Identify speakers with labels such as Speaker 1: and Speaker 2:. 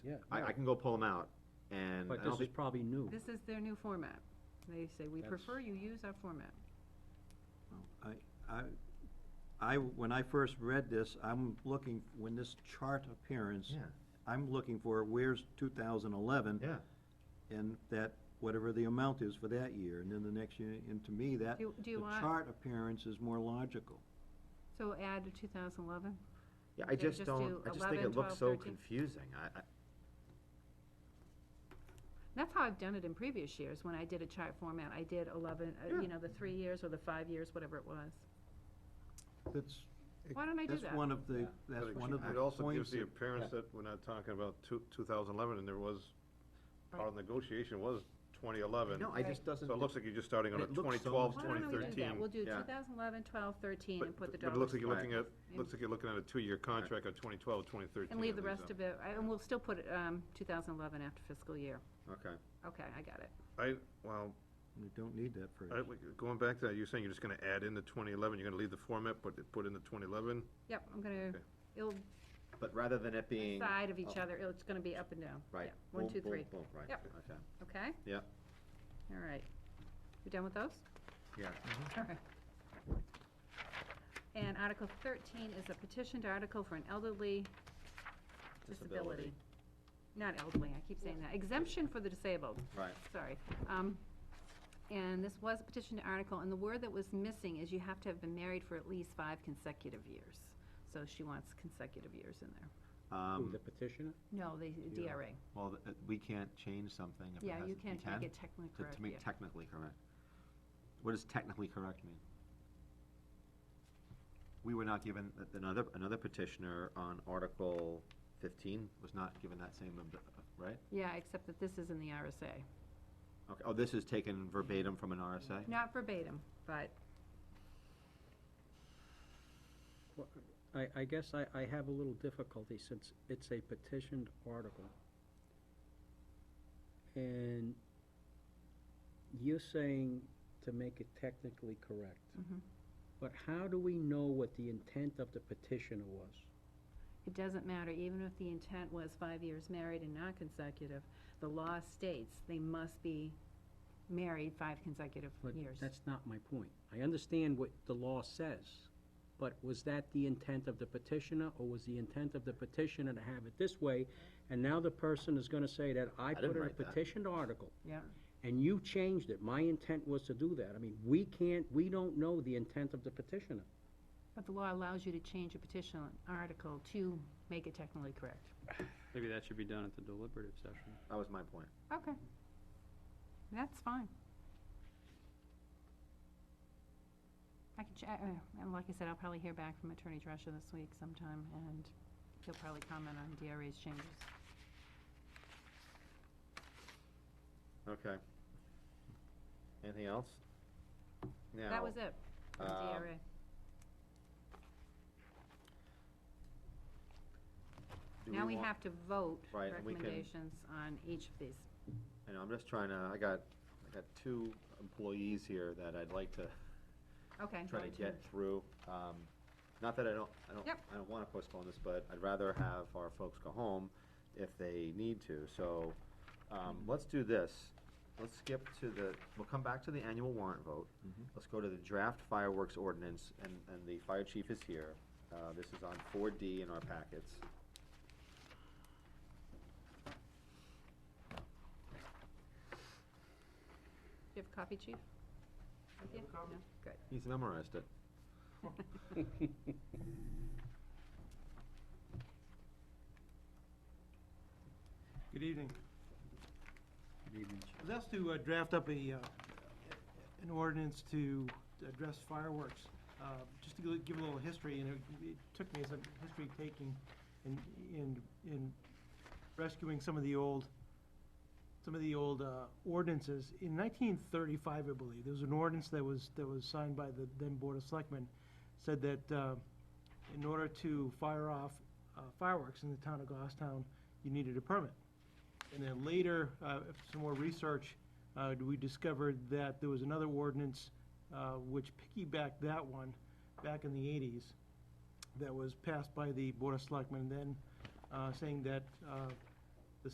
Speaker 1: Yeah.
Speaker 2: I, I can go pull them out, and I
Speaker 1: But
Speaker 2: don't
Speaker 1: this is
Speaker 2: think,
Speaker 1: probably new.
Speaker 3: This is their new format. They say, we
Speaker 1: That's-
Speaker 3: prefer you use our format.
Speaker 4: I, I, when I first read this, I'm looking, when this chart appearance,
Speaker 2: yeah,
Speaker 4: I'm looking for where's two thousand eleven,
Speaker 2: yeah.
Speaker 4: and that, whatever the amount is for that year, and then the next year, and to me, that,
Speaker 3: Do you- do you
Speaker 4: the
Speaker 3: want-
Speaker 4: chart appearance is more logical.
Speaker 3: So add to two thousand eleven?
Speaker 2: Yeah, I
Speaker 3: Okay,
Speaker 2: just
Speaker 3: just
Speaker 2: don't,
Speaker 3: do
Speaker 2: I just think
Speaker 3: 11,
Speaker 2: it looks
Speaker 3: 12,
Speaker 2: so
Speaker 3: 13.
Speaker 2: confusing, I, I,
Speaker 3: That's how I've done it in previous years, when I did a chart format, I did eleven, uh,
Speaker 2: Yeah.
Speaker 3: you know, the three years or the five years, whatever it was.
Speaker 4: That's,
Speaker 3: Why don't I do
Speaker 4: that's
Speaker 3: that?
Speaker 4: one of the,
Speaker 1: Yeah.
Speaker 4: that's
Speaker 5: But it-
Speaker 4: one of the
Speaker 5: It also
Speaker 4: points
Speaker 5: gives the
Speaker 4: that-
Speaker 5: appearance that we're not talking about two, two thousand eleven, and there was, our negotiation was twenty eleven.
Speaker 2: no, I just doesn't.
Speaker 5: So it looks like you're just starting on
Speaker 2: It
Speaker 5: a
Speaker 2: looks so
Speaker 5: twenty twelve,
Speaker 2: much
Speaker 3: Why
Speaker 5: twenty
Speaker 3: don't we do
Speaker 5: thirteen.
Speaker 3: that? We'll do
Speaker 2: yeah.
Speaker 3: 2011, 12, 13, and put the
Speaker 5: But it
Speaker 3: dollars.
Speaker 5: looks like you're looking at,
Speaker 3: in.
Speaker 5: looks like you're looking at a two-year contract of twenty twelve, twenty thirteen.
Speaker 3: And leave the rest of it, I- and we'll still put, it, um, two thousand eleven after fiscal year.
Speaker 2: Okay,
Speaker 3: Okay, I got it.
Speaker 5: I, well,
Speaker 4: You don't need that
Speaker 5: I,
Speaker 4: phrase.
Speaker 5: going back to that, you're saying you're just gonna add in the twenty eleven, you're gonna leave the format, but put in the twenty eleven?
Speaker 3: Yep, I'm gonna,
Speaker 5: Okay.
Speaker 3: it'll
Speaker 2: but rather than it being.
Speaker 3: side of each
Speaker 2: up,
Speaker 3: other, it's gonna be up and down.
Speaker 2: Right.
Speaker 3: Yeah, One,
Speaker 2: boom,
Speaker 3: two,
Speaker 2: boom,
Speaker 3: three,
Speaker 2: boom, right,
Speaker 3: Yep.
Speaker 2: okay,
Speaker 3: okay?
Speaker 2: yeah,
Speaker 3: All right. You done with those?
Speaker 2: yeah.
Speaker 3: All right. And Article thirteen is a petitioned article for an elderly disability. Not elderly, I keep saying that, exemption for the disabled,
Speaker 2: Right,
Speaker 3: sorry. Um, And this was a petitioned article, and the word that was missing is you have to have been married for at least five consecutive years. So she wants consecutive years in there.
Speaker 1: Who,
Speaker 2: um,
Speaker 1: the petitioner?
Speaker 3: No, the DRA.
Speaker 2: well, th- uh, we can't change something if it
Speaker 3: Yeah,
Speaker 2: hasn't.
Speaker 3: you can't
Speaker 2: can?
Speaker 3: make it technically
Speaker 2: To,
Speaker 3: correct,
Speaker 2: to
Speaker 3: yeah.
Speaker 2: make technically correct. What does technically correct mean? We were not given, uh, another, another petitioner on Article fifteen was not given that same, ab- uh, right?
Speaker 3: Yeah, except that this is in the RSA.
Speaker 2: Okay, oh, this is taken verbatim from an RSA?
Speaker 3: Not verbatim, but
Speaker 1: Well, I, I guess I, I have a little difficulty since it's a petitioned article. And you're saying to make it technically correct.
Speaker 3: Mhm.
Speaker 1: But how do we know what the intent of the petitioner was?
Speaker 3: It doesn't matter, even if the intent was five years married and not consecutive, the law states they must be married five consecutive
Speaker 1: But
Speaker 3: years.
Speaker 1: that's not my point. I understand what the law says, but was that the intent of the petitioner, or was the intent of the petitioner to have it this way? And now the person is gonna say that I
Speaker 2: didn't
Speaker 1: put in a
Speaker 2: write that.
Speaker 1: petitioned article,
Speaker 3: Yeah,
Speaker 1: and you changed it. My intent was to do that. I mean, we can't, we don't know the intent of the petitioner.
Speaker 3: but the law allows you to change a petition article to make it technically correct.
Speaker 6: Maybe that should be done at the deliberative session.
Speaker 2: That was my point.
Speaker 3: Okay. That's fine. I can, ch- uh, and like I said, I'll probably hear back from Attorney Drescher this week sometime, and he'll probably comment on DRA's changes.
Speaker 2: Okay. Anything else?
Speaker 3: That was it, from
Speaker 2: um,
Speaker 3: DRA. Now we have to vote
Speaker 2: Right, and we can-
Speaker 3: recommendations on each of these.
Speaker 2: I know, I'm just trying to, I got, I got two employees here that I'd like to
Speaker 3: Okay.
Speaker 2: try to
Speaker 3: vote
Speaker 2: get through. Um, Not that I don't, I don't,
Speaker 3: Yep.
Speaker 2: I don't wanna postpone this, but I'd rather have our folks go home if they need to, so, um, let's do this. Let's skip to the, we'll come back to the annual warrant vote. Let's go to the draft fireworks ordinance, and, and the fire chief is here. Uh, this is on four D in our packets.
Speaker 3: Do you have a copy, chief? With you? No? Good.
Speaker 2: He's memorized it.
Speaker 7: Good evening. I was asked to uh, draft up a, uh, an ordinance to address fireworks. Uh, Just to gi- give a little history, and it- it took me some history taking in, in, in rescuing some of the old, some of the old uh, ordinances. In nineteen thirty-five, I believe, there was an ordinance that was, that was signed by the then Board of Selectmen, said that uh, in order to fire off uh, fireworks in the town of Goffstown, you needed a permit. And then later, uh, after some more research, uh, we discovered that there was another ordinance uh, which piggybacked that one back in the 80s that was passed by the Board of Selectmen then, uh, saying that uh,